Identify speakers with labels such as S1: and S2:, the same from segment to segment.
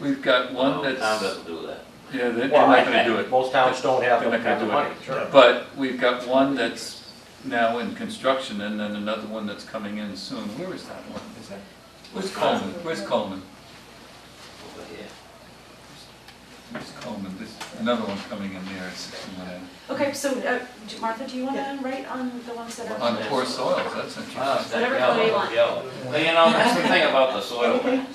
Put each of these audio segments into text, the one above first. S1: We've got
S2: Well,
S1: one
S2: Oh, town
S1: that's,
S2: doesn't do that.
S1: yeah, they- they're
S3: Well,
S1: not
S3: I-
S1: gonna do it.
S3: Most towns don't have
S1: They're
S3: the
S1: not gonna
S3: have the
S1: do it.
S3: money, sure.
S1: But we've got one that's now in construction and then another one that's coming in soon. Where is that one? Is that, where's Coleman? Where's Coleman?
S2: Over here.
S1: Where's Coleman? This, another one coming in there at sixty-one A.
S4: Okay, so uh, do- Martha, do you want to write on the ones that
S1: On
S4: are?
S1: poor soils, that's
S2: Ah,
S1: interesting.
S2: it's
S4: Whatever
S2: that
S4: color you
S2: yellow,
S4: want.
S2: yellow. Well, you know, that's the thing about the soil map.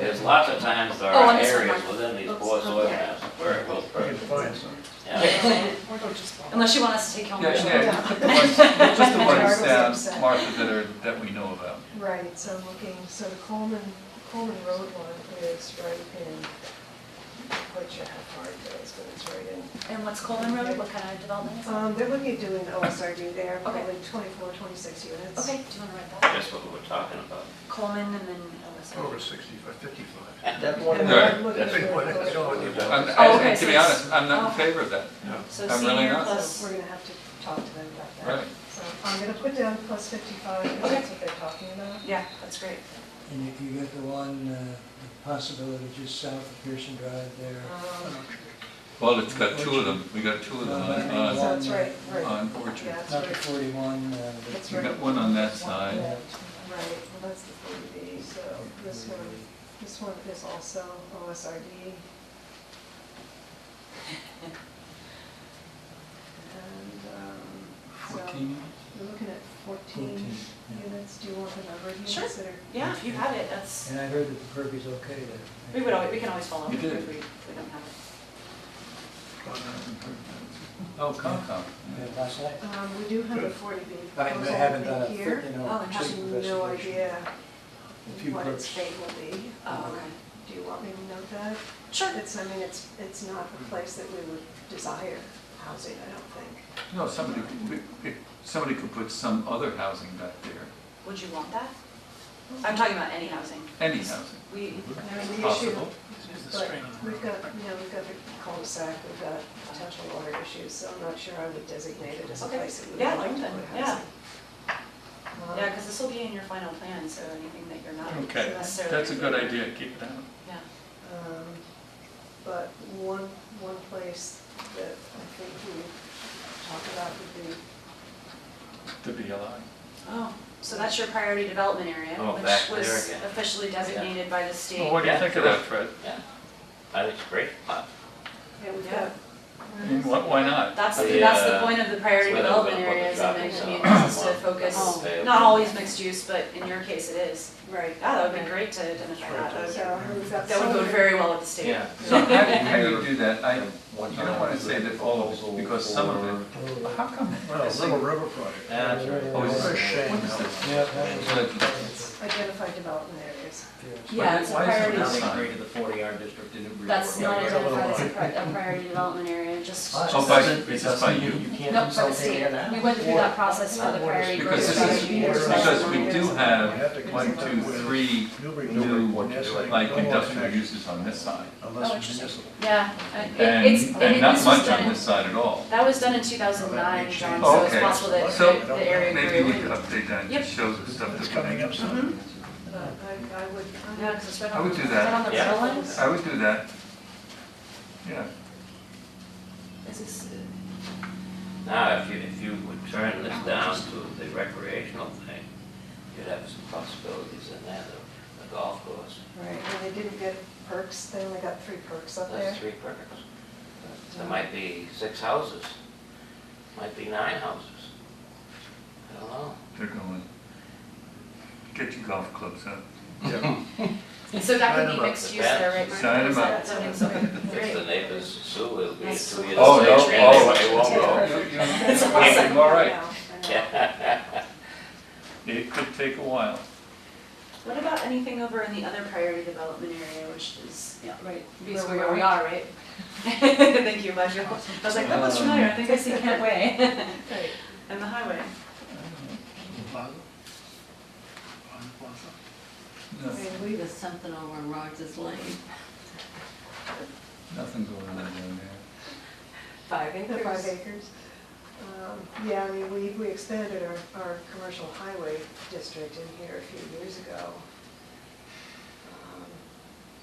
S2: There's lots of times there
S4: Oh,
S2: are
S4: on this one.
S2: areas within these poor
S4: Oops,
S2: soil
S4: okay.
S2: maps where it goes perfect. Yeah.
S5: Unless
S4: Unless you want us to take home.
S1: Yeah,
S4: the-
S1: yeah, just put the ones, just the
S5: Jarvis
S1: ones
S5: upset.
S1: down, Martha, that are, that we know about.
S5: Right, so I'm looking, so the Coleman, Coleman Road one is right in, which I have hard days, but it's right in.
S4: And what's Coleman Road, what kind of development is that?
S5: Um, they're looking at doing OSRD there,
S4: Okay.
S5: probably 24, 26 units.
S4: Okay, do you want to write that?
S2: That's what we were talking about.
S4: Coleman and then Ellis.
S6: Over sixty-five, fifty-five.
S3: That's
S5: And
S3: one,
S1: Right.
S5: I'm looking
S6: That's
S5: for
S6: what it's
S5: those.
S6: showing you.
S1: I'm,
S4: Oh,
S1: I-
S4: okay,
S1: to
S4: so
S1: be
S4: it's-
S1: honest, I'm not in
S4: okay.
S1: favor of that.
S4: So
S1: I'm really
S4: senior
S1: not.
S5: So
S4: plus,
S5: we're gonna have to talk to them about that.
S1: Right.
S5: So I'm gonna put down plus 55, because that's what they're talking about.
S4: yeah, that's great.
S7: And if you get the one, uh, the possibility just south of Pearson Drive there.
S5: Um,
S1: Well, it's got two of them, we got
S7: Uh,
S1: two of them on,
S7: Oh,
S5: So
S1: on-
S5: that's right, right,
S1: on Orchard.
S5: yeah, that's
S7: Not the
S5: right.
S7: 41, uh, but
S5: That's
S1: We
S5: right.
S1: got one on that side.
S5: Yeah, Right, well, that's the 40B, so this one, this one is also OSRD. And, um, so,
S1: Fourteen,
S5: we're looking at 14
S7: 14. yeah.
S5: units, do you want the number of units
S4: Sure.
S5: that are?
S4: Yeah, if you have it, that's,
S7: And I heard that the curb is okay there.
S4: we would always, we can always follow up
S1: You
S4: if we,
S1: did.
S4: if we don't have it.
S1: oh, Concom.
S7: Yeah, last night.
S5: Um, we do have a 40B
S7: I
S5: proposal,
S7: haven't uh, done
S5: I
S7: a,
S5: think, here.
S7: you know,
S5: Oh, I
S7: complete
S5: have no
S7: investigation.
S5: idea
S7: A few
S5: what its
S7: books.
S5: fate will be.
S4: Oh,
S5: Um,
S4: okay.
S5: Do you want me to note that?
S4: Sure.
S5: It's, I mean, it's, it's not a place that we would desire housing, I don't think.
S1: No, somebody, could- we- if somebody could put some other housing back there,
S4: Would you want that? I'm talking about any housing.
S1: any housing,
S4: We,
S5: I mean,
S1: if
S5: the issue,
S1: possible.
S5: but we've got, you know, we've got the cul-de-sac, we've got potential water issues, so I'm not sure I would designate it as a
S4: Okay.
S5: place that we
S4: Yeah,
S5: would like to
S4: London,
S5: put
S4: yeah.
S5: housing. Um,
S4: yeah, because this will be in your final plan, so anything that you're not
S1: Okay,
S4: necessarily.
S1: that's a good idea, keep it out.
S4: Yeah.
S5: Um, But one, one place that I think we would talk about would be,
S1: The BLI.
S4: Oh, so that's your priority development area,
S2: Oh,
S4: which
S2: back
S4: was
S2: there again.
S4: officially designated by the state.
S1: Well, what do you think of that, Fred?
S2: I think it's great.
S5: yeah, we've
S4: Yeah.
S5: got,
S1: I mean, why, why not?
S4: That's,
S2: The,
S4: that's the
S2: uh,
S4: point of the priority
S2: it's where they're
S4: development
S2: gonna put the
S4: areas in
S2: shopping
S4: many
S2: center.
S4: communities is to
S2: Oh.
S4: focus,
S2: Yeah.
S4: not always mixed use, but in your case it is.
S5: right.
S4: Yeah, Ah, that would be great to identify that, that
S5: So we've got
S4: would, that would go
S5: some-
S4: very well with the state.
S1: So how do you, how do you do that? I, you don't wanna say that all of it, because some of it, how come?
S6: Well, Little River Project.
S2: Yeah, that's right.
S1: Oh, is
S6: What a
S1: it-
S6: shame.
S1: what is it?
S7: Yeah, that was-
S1: Good.
S7: that's-
S5: Identify development areas.
S7: yes.
S4: Yeah, it's a
S1: Why is it
S4: priority,
S1: not
S4: development-
S1: signed?
S8: the forty R district didn't agree.
S4: that's
S8: with it.
S4: not identified as a pri- a priority development area, just.
S8: Fine.
S1: Oh,
S8: It
S1: by-
S8: doesn't-
S1: it's
S8: it
S1: just by
S8: doesn't-
S1: you.
S8: can't do
S4: No, for the
S8: something
S4: state,
S8: in that.
S4: we went through that process for the
S7: Or-
S4: priority.
S1: Because this is,
S4: development areas.
S1: because we do have one, two, three
S6: Newbury,
S1: new,
S6: Newbury, Nestle,
S1: like
S6: no more
S1: industrial
S6: connection
S1: uses on this side.
S4: Oh,
S6: Unless
S4: interesting.
S6: municipal.
S4: Yeah, I- it- it's,
S1: And,
S4: and
S1: and
S4: it-
S1: not
S4: this was
S1: much on
S4: done-
S1: this side at all.
S4: That was done in two thousand nine, John,
S1: Oh,
S4: so it's
S1: okay.
S4: possible that
S1: So
S4: the- the area grew.
S1: Maybe we could update that, and just show the stuff
S6: It's
S1: that we
S6: coming up
S1: have.
S6: soon.
S5: But I, I would, I
S4: Yeah,
S5: would
S4: 'cause it's right
S1: I
S4: on,
S1: would
S4: is
S1: do
S4: that on the
S2: Yeah.
S4: rail lines?
S1: I would do that. Yeah,
S4: Is this,
S2: Now, if you, if you would turn this down to the recreational thing, you'd have some possibilities in there, the, the golf course.
S5: Right, and they didn't get perks, they only got three perks up there.
S2: That's three perks. There might be six houses, might be nine houses. I don't know.
S1: they're going. Get your golf clubs out.
S4: so that
S6: Sign
S4: could be
S6: them up.
S4: mixed use there, right, Mark?
S1: Sign them
S4: Is that
S1: up.
S4: something- okay,
S2: If the
S4: great.
S2: neighbors sue, it'll be a
S4: Nice.
S2: two years.
S1: Oh, no,
S4: Nice.
S1: oh.
S2: It won't go.
S4: It's
S1: You're All right,
S5: Yeah.
S1: it could take a while.
S4: What about anything over in the other priority development area, which is, yeah, right, basically
S5: we
S4: where we are, right? Thank you, Michael. I was like, that looks familiar, I think I see Kent Way
S5: Right,
S4: and the highway.
S6: Plaza? Pond Plaza?
S1: No,
S5: I mean, we,
S9: There's something over in Rogers Lane,
S1: Nothing going on down there.
S9: five
S5: the five
S9: acres.
S5: acres. Um, Yeah, I mean, we, we expanded our, our commercial highway district in here a few years ago, Um,